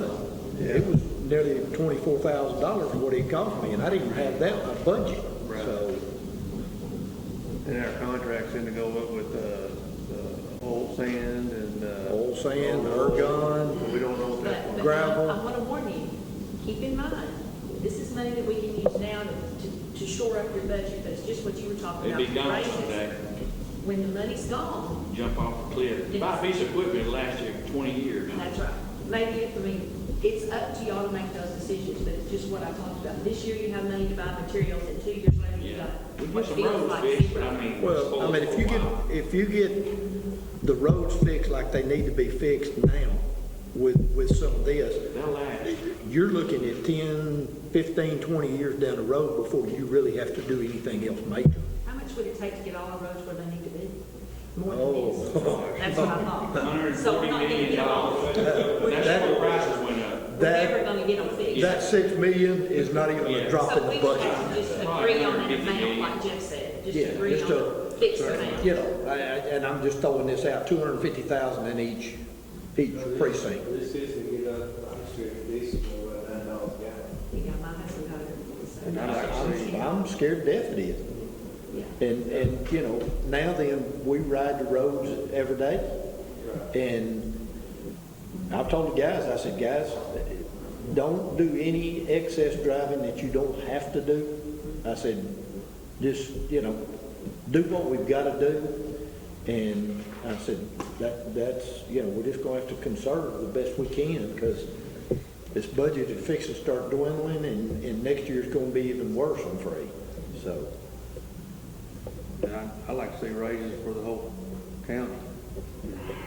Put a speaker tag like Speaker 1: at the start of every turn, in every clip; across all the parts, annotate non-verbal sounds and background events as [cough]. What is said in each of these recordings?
Speaker 1: done. It was nearly twenty-four thousand dollars what it cost me, and I didn't have that in my budget.
Speaker 2: Right.
Speaker 1: So,
Speaker 2: And our contract's gonna go up with, uh, uh, old sand and, uh.
Speaker 1: Oil sand, ergon.
Speaker 2: We don't know what that's
Speaker 3: But,
Speaker 2: going
Speaker 3: but
Speaker 2: to
Speaker 1: Gravel.
Speaker 3: now, I want to warn you, keep in mind, this is money that we can use now to, to shore up your budget, but it's just what you were talking
Speaker 4: It'd
Speaker 3: about. with
Speaker 4: be gone
Speaker 3: raises.
Speaker 4: someday,
Speaker 3: When the money's gone,
Speaker 4: jump off a cliff. Buy a piece of equipment last year, twenty years.
Speaker 3: that's right. Maybe, I mean, it's up to y'all to make those decisions, but it's just what I talked about. This year you have money to buy materials, and two years later you
Speaker 4: Yeah.
Speaker 3: got
Speaker 4: We
Speaker 3: what
Speaker 4: put some
Speaker 3: feels
Speaker 4: roads
Speaker 3: like
Speaker 4: fixed, but
Speaker 3: zero.
Speaker 4: I mean.
Speaker 1: well, I mean, if you get, if you get the roads fixed like they need to be fixed now with, with some of this,
Speaker 4: They'll last.
Speaker 1: you're looking at 10, 15, 20 years down the road before you really have to do anything else major.
Speaker 3: How much would it take to get all our roads where they need to be? More than this.
Speaker 1: Oh,
Speaker 3: That's what I thought.
Speaker 4: [laughs] Hundred and
Speaker 3: So we're
Speaker 4: forty
Speaker 3: not gonna
Speaker 4: million
Speaker 3: get all,
Speaker 4: dollars. That's where the prices went up.
Speaker 3: we're
Speaker 1: That-
Speaker 3: never gonna get them fixed.
Speaker 1: That 6 million is not even a
Speaker 4: Yeah.
Speaker 1: drop in
Speaker 3: So
Speaker 1: the
Speaker 3: we would
Speaker 1: budget.
Speaker 3: have to just
Speaker 4: Probably
Speaker 3: agree on an
Speaker 4: 150
Speaker 3: amount,
Speaker 4: million.
Speaker 3: like Jeff said, just
Speaker 1: Yeah,
Speaker 3: agree
Speaker 1: just
Speaker 3: on
Speaker 1: to-
Speaker 3: a fixed amount.
Speaker 1: You know, I- I- and I'm just throwing this out, two hundred and fifty thousand in each, each precinct.
Speaker 5: This is to get up, I'm sure diesel will run nine dollars a gallon.
Speaker 3: I think I might have some other-
Speaker 1: And I'm, I'm- I'm scared to death it is.
Speaker 3: Yeah.
Speaker 1: And, and, you know, now then, we ride the roads every day. And I've told the guys, I said, guys, don't do any excess driving that you don't have to do. I said, just, you know, do what we've got to do. And I said, that, that's, you know, we're just going to have to conserve the best we can because this budget is fixing to start dwindling and, and next year's going to be even worse, I'm afraid. So,
Speaker 2: And I, I like to see raises for the whole county.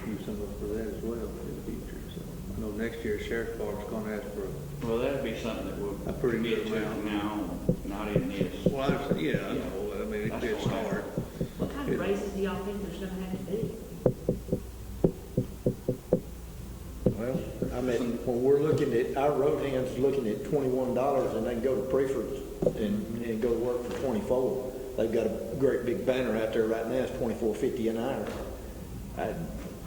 Speaker 2: Use some of it for that as well in the future, so. I know next year sheriff's department's gonna ask for, a-
Speaker 4: Well, that'd be something that we'll.
Speaker 2: A pretty good
Speaker 4: get to
Speaker 2: amount.
Speaker 4: Now, not in this.
Speaker 2: well, I understand, yeah, I know, I mean, it's, it's hard.
Speaker 3: What kind of raises do y'all think there's gonna have to be?
Speaker 1: well, I mean, when we're looking at, our road hand's looking at twenty-one dollars and they can go to Preference and, and go to work for twenty-four. They've got a great big banner out there right now, it's twenty-four fifty an hour. I,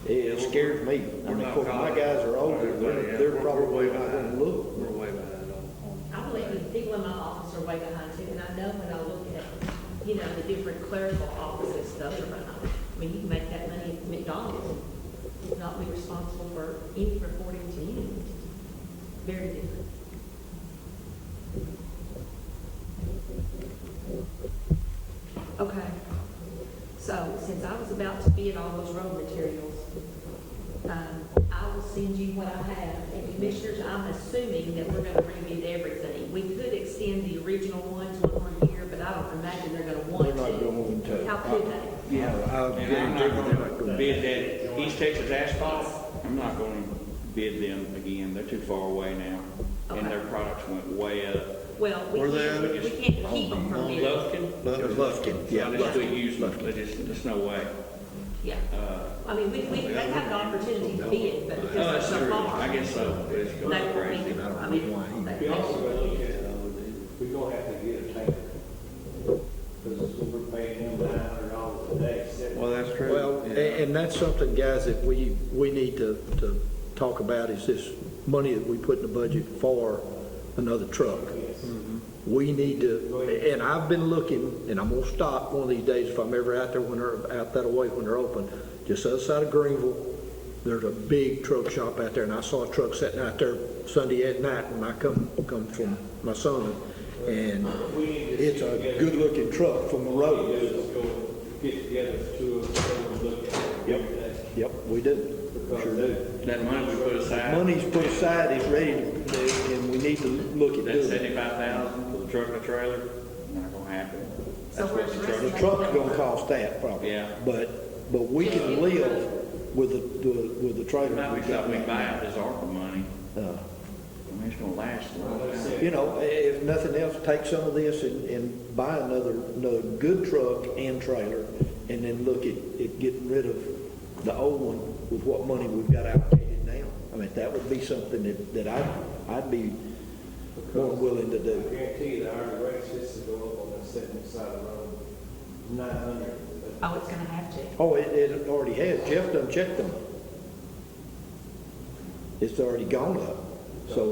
Speaker 1: it scares me. I mean, of course, my guys are older, they're, they're probably not gonna look.
Speaker 2: We're way behind on,
Speaker 3: I believe the people in my office are way behind too, and I know when I look at, you know, the different clerical offices, those are behind. I mean, you can make that money at McDonald's, not be responsible for any reporting to you. Very different. Okay, so since I was about to bid all those road materials, um, I will send you what I have. And commissioners, I'm assuming that we're gonna rebid everything. We could extend the original ones one more year, but I don't imagine they're gonna want
Speaker 1: They're
Speaker 3: to.
Speaker 1: not going to.
Speaker 3: How could they?
Speaker 1: Yeah. I'll
Speaker 4: And I'm not
Speaker 1: guarantee you they're not
Speaker 4: gonna
Speaker 1: gonna.
Speaker 4: bid that East Texas asphalt, I'm not gonna bid them again, they're too far away now. And their products went way up.
Speaker 3: Well, we
Speaker 2: Were they
Speaker 3: can't, we can't keep them from bidding.
Speaker 4: Lufkin?
Speaker 1: Lufkin, yeah,
Speaker 4: I just
Speaker 3: Lufkin.
Speaker 4: could use them, but it's, there's no way.
Speaker 3: Yeah,
Speaker 4: Uh,
Speaker 3: I mean, we, we, they have an opportunity to bid, but because
Speaker 4: Oh,
Speaker 3: they're
Speaker 4: that's
Speaker 3: so
Speaker 4: true,
Speaker 3: far.
Speaker 4: I guess so, but it's
Speaker 3: They
Speaker 4: going
Speaker 3: won't
Speaker 4: crazy.
Speaker 3: be, I mean, they-
Speaker 5: We also
Speaker 3: they-
Speaker 5: gotta look at, uh, we gonna have to get a tanker. Cause we're paying him nine hundred dollars a day,
Speaker 2: on.
Speaker 5: seven.
Speaker 2: Well, that's true.
Speaker 1: Well, and,
Speaker 2: Yeah.
Speaker 1: and that's something, guys, that we, we need to, to talk about is this money that we put in the budget for another truck. Mm-hmm. We need to, and I've been looking, and I'm gonna stop one of these days if I'm ever out there when they're out that way when they're open. Just outside of Greenville, there's a big truck shop out there, and I saw a truck sitting out there Sunday at night when I come, come from my son. And it's a good-looking truck from the
Speaker 5: We
Speaker 1: road.
Speaker 5: just go get together two of us and look at it
Speaker 1: Yep,
Speaker 5: every day.
Speaker 1: yep, we do. Sure
Speaker 5: Because
Speaker 1: do.
Speaker 5: that,
Speaker 4: That money we put aside,
Speaker 1: Money's put aside, it's ready, to- and we need to look at
Speaker 4: that
Speaker 1: doing it.
Speaker 4: seventy-five thousand for the truck and the trailer, not gonna happen.
Speaker 3: So
Speaker 4: That's what
Speaker 3: where's
Speaker 4: the
Speaker 3: the
Speaker 4: truck,
Speaker 1: The truck's gonna cost that probably.
Speaker 4: Yeah.
Speaker 1: But, but we can live with the, the- with the trailer.
Speaker 4: might
Speaker 1: we've
Speaker 4: be something we
Speaker 1: got.
Speaker 4: buy out this ARPA money,
Speaker 1: Uh,
Speaker 4: I mean, it's gonna last a long time.
Speaker 1: You know, i- if nothing else, take some of this and, and buy another, another good truck and trailer, and then look at, at getting rid of the old one with what money we've got allocated now. I mean, that would be something that, that I, I'd be more willing to
Speaker 5: I
Speaker 1: do.
Speaker 5: guarantee you the hourly rate is to go up on that seventy side of the road, nine hundred.
Speaker 3: Oh, it's gonna have to.
Speaker 1: Oh, it, it already has. Jeff done checked them. It's already gone up. So